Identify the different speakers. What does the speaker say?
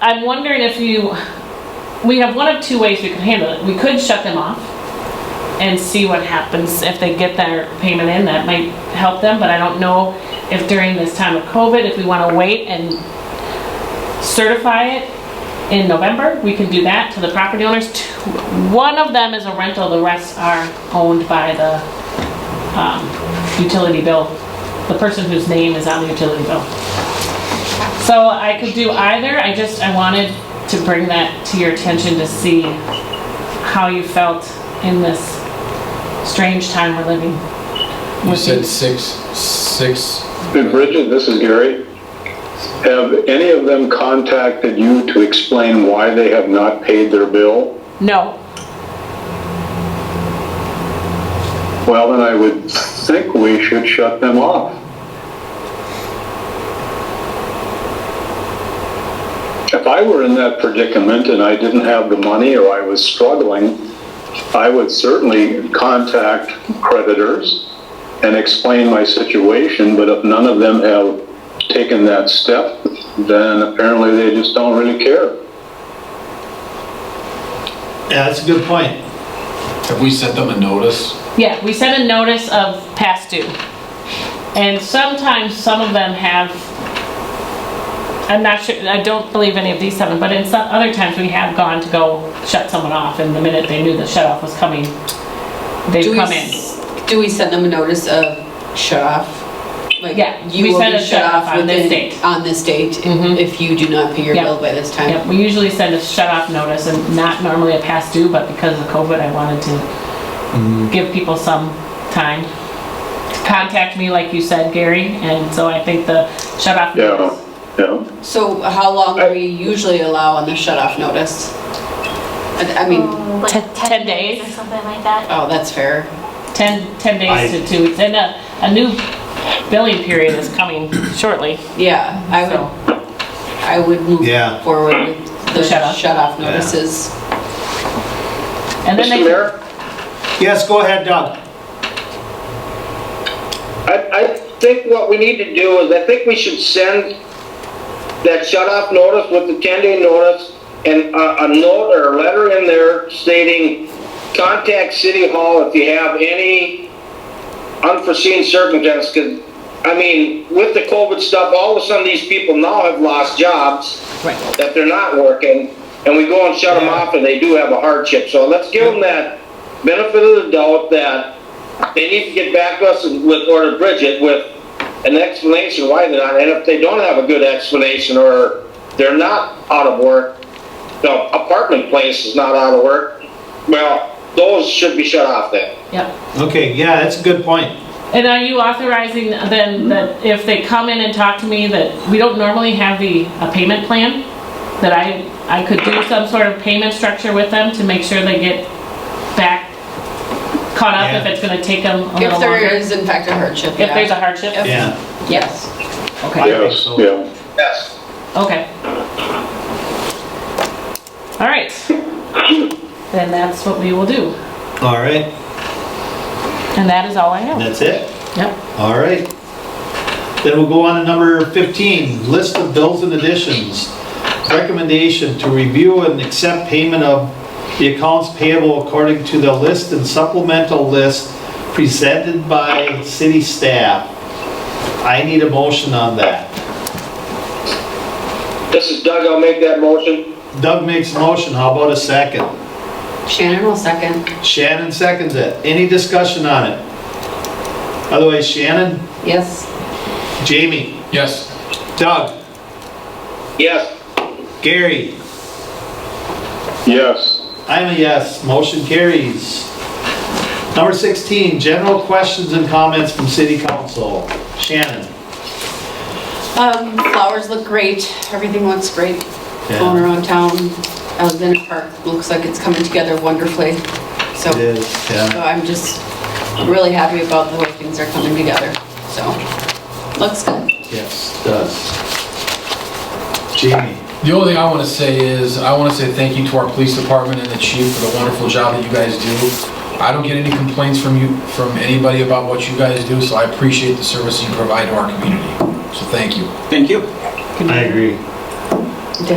Speaker 1: I'm wondering if you, we have one of two ways we could handle it. We could shut them off and see what happens if they get their payment in. That might help them, but I don't know if during this time of COVID, if we want to wait and certify it in November, we can do that to the property owners. Two- One of them is a rental, the rest are owned by the um, utility bill, the person whose name is on the utility bill. So I could do either, I just, I wanted to bring that to your attention to see how you felt in this strange time we're living.
Speaker 2: You said six, six,
Speaker 3: And Bridget, this is Gary. Have any of them contacted you to explain why they have not paid their bill?
Speaker 1: No,
Speaker 3: Well, then I would think we should shut them off. If I were in that predicament and I didn't have the money or I was struggling, I would certainly contact creditors and explain my situation, but if none of them have taken that step, then apparently they just don't really care.
Speaker 4: Yeah, that's a good point.
Speaker 2: have we sent them a notice?
Speaker 1: Yeah, we sent a notice of past due. And sometimes some of them have, I'm not sure, I don't believe any of these seven, but in some, other times we have gone to go shut someone off and the minute they knew the shut off was coming,
Speaker 5: Do
Speaker 1: they'd
Speaker 5: we
Speaker 1: come in.
Speaker 5: s- Do we send them a notice of shut off? Like,
Speaker 1: Yeah,
Speaker 5: you
Speaker 1: we
Speaker 5: will
Speaker 1: send
Speaker 5: be
Speaker 1: a shut off on this
Speaker 5: within-
Speaker 1: date.
Speaker 5: On this date,
Speaker 1: Mhm.
Speaker 5: if you do not pay your
Speaker 1: Yep.
Speaker 5: bill by this time.
Speaker 1: Yep, we usually send a shut off notice and not normally a past due, but because of COVID, I wanted to give people some time to contact me, like you said, Gary, and so I think the shut off
Speaker 3: Yeah,
Speaker 1: notice.
Speaker 3: yeah.
Speaker 5: So how long do we usually allow on the shut off notice? I I mean,
Speaker 6: Oh, like
Speaker 1: Ten-
Speaker 6: 10,
Speaker 1: ten
Speaker 6: days.
Speaker 1: days.
Speaker 6: or something like that.
Speaker 5: oh, that's fair.
Speaker 1: 10, 10 days
Speaker 4: I-
Speaker 1: to two weeks, and a, a new billing period is coming shortly,
Speaker 5: Yeah, I
Speaker 1: so.
Speaker 5: would, I would move
Speaker 4: Yeah.
Speaker 5: forward with the
Speaker 1: The shut off.
Speaker 5: shut off notices.
Speaker 1: And then
Speaker 3: Mr.
Speaker 1: they,
Speaker 3: Mayor?
Speaker 4: Yes, go ahead, Doug.
Speaker 7: I, I think what we need to do is, I think we should send that shut-off notice with the ten-day notice and a, a note or a letter in there stating, contact City Hall if you have any unforeseen circumstance, 'cause, I mean, with the COVID stuff, all of a sudden these people now have lost jobs
Speaker 5: Right.
Speaker 7: that they're not working, and we go and shut them off, and they do have a hardship. So let's give them that benefit of the doubt that they need to get back to us with, or to Bridget with an explanation why they're not, and if they don't have a good explanation, or they're not out of work, the apartment place is not out of work, well, those should be shut off then.
Speaker 1: yep.
Speaker 4: Okay, yeah, that's a good point.
Speaker 1: And are you authorizing then that if they come in and talk to me, that we don't normally have the, a payment plan? That I, I could do some sort of payment structure with them to make sure they get back caught up if
Speaker 4: Yeah.
Speaker 1: it's gonna take them a
Speaker 5: If
Speaker 1: little
Speaker 5: there
Speaker 1: longer?
Speaker 5: is in fact a hardship, yeah.
Speaker 1: If there's a hardship?
Speaker 5: If-
Speaker 4: Yeah,
Speaker 5: Yes.
Speaker 1: Okay.
Speaker 4: I think
Speaker 3: Yes,
Speaker 4: so.
Speaker 3: yeah.
Speaker 7: Yes.
Speaker 1: Okay. All right. Then that's what we will do.
Speaker 4: All right,
Speaker 1: And that is all I have.
Speaker 4: that's it.
Speaker 1: Yep.
Speaker 4: All right. Then we'll go on to number 15, list of bills and additions. Recommendation to review and accept payment of the accounts payable according to the list and supplemental list presented by city staff. I need a motion on that.
Speaker 7: This is Doug, I'll make that motion.
Speaker 4: Doug makes a motion, how about a second?
Speaker 5: Shannon will second.
Speaker 4: Shannon seconds it. Any discussion on it? Otherwise, Shannon,
Speaker 5: Yes.
Speaker 4: Jamie,
Speaker 2: Yes.
Speaker 4: Doug,
Speaker 7: Yes.
Speaker 4: Gary,
Speaker 3: Yes.
Speaker 4: I'm a yes, motion carries. Number 16, general questions and comments from city council. Shannon.
Speaker 5: Um, flowers look great, everything looks great,
Speaker 4: Yeah.
Speaker 5: going around town. Alexander Park looks like it's coming together wonderfully, so,
Speaker 4: It is,
Speaker 5: so
Speaker 4: yeah.
Speaker 5: I'm just really happy about the way things are coming together, so, looks good.
Speaker 4: Yes, does. Jamie.
Speaker 2: The only thing I want to say is, I want to say thank you to our police department and the chief for the wonderful job that you guys do. I don't get any complaints from you, from anybody about what you guys do, so I appreciate the service you provide to our community. So thank you.
Speaker 4: I agree.